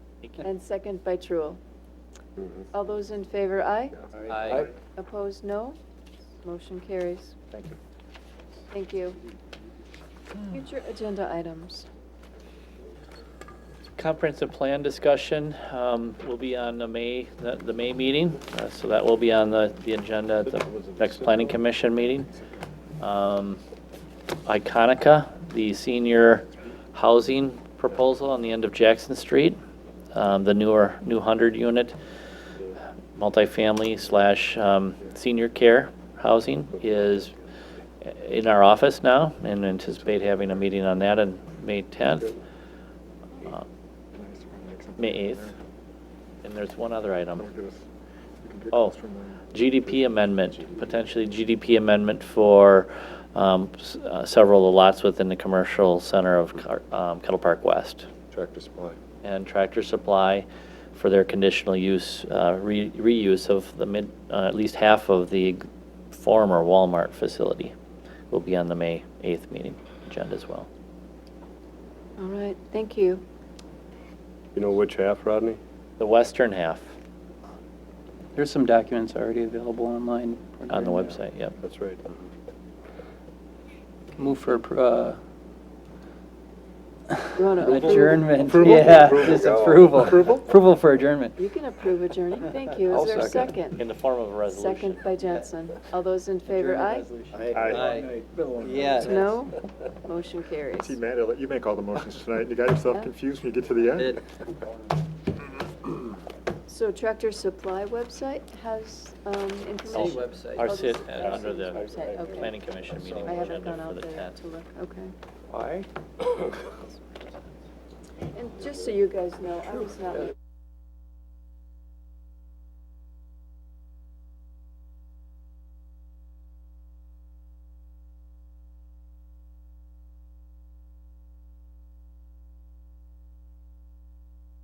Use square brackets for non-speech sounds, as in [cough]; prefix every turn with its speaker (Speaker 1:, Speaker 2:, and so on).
Speaker 1: and second by Truul. All those in favor, aye?
Speaker 2: Aye.
Speaker 1: Opposed, no? Motion carries.
Speaker 3: Thank you.
Speaker 1: Thank you. Future agenda items.
Speaker 2: Comprehensive plan discussion um, will be on the May, the the May meeting, uh, so that will be on the the agenda at the next planning commission meeting. Um, Iconica, the senior housing proposal on the end of Jackson Street, um, the newer, new 100-unit multifamily slash um, senior care housing is in our office now, and anticipate having a meeting on that on May 10th. Uh, May 8th. And there's one other item. Oh, GDP amendment, potentially GDP amendment for um, s- uh, several of the lots within the commercial center of Car- um, Kettle Park West.
Speaker 3: Tractor supply.
Speaker 2: And Tractor Supply for their conditional use, uh, re- reuse of the mid, uh, at least half of the former Walmart facility will be on the May 8th meeting agenda as well.
Speaker 1: All right, thank you.
Speaker 3: You know which half, Rodney?
Speaker 2: The western half
Speaker 4: There's some documents already available online.
Speaker 2: on the
Speaker 4: regarding that.
Speaker 2: website, yep.
Speaker 3: That's right.
Speaker 4: Move for, appro-
Speaker 1: You
Speaker 4: [laughs]
Speaker 1: want
Speaker 4: uh,
Speaker 1: to
Speaker 4: adjournment,
Speaker 3: Approval.
Speaker 4: yeah,
Speaker 3: Approval.
Speaker 4: disapproval.
Speaker 3: Approval?
Speaker 4: Approval for adjournment.
Speaker 1: You can approve adjourning, thank you. Is
Speaker 4: I'll
Speaker 1: there a
Speaker 4: second.
Speaker 1: second?
Speaker 2: In the form of a resolution.
Speaker 1: Second by Jensen. All those in favor, aye?
Speaker 4: Aye. Yeah. [laughs]
Speaker 1: No? Motion carries.
Speaker 5: See, Matt, I'll let you make all the motions tonight. You got yourself confused when you get to the end.
Speaker 1: So Tractor Supply website has um, information?
Speaker 4: City website.
Speaker 2: Our
Speaker 1: Oh, the
Speaker 2: sit,
Speaker 1: city
Speaker 2: uh, under the
Speaker 1: website, okay.
Speaker 2: planning commission meeting
Speaker 1: I haven't
Speaker 2: agenda
Speaker 1: gone
Speaker 2: for the
Speaker 1: out there
Speaker 2: 10th.
Speaker 1: to look, okay.
Speaker 3: Aye.
Speaker 1: And just so you guys know, I was not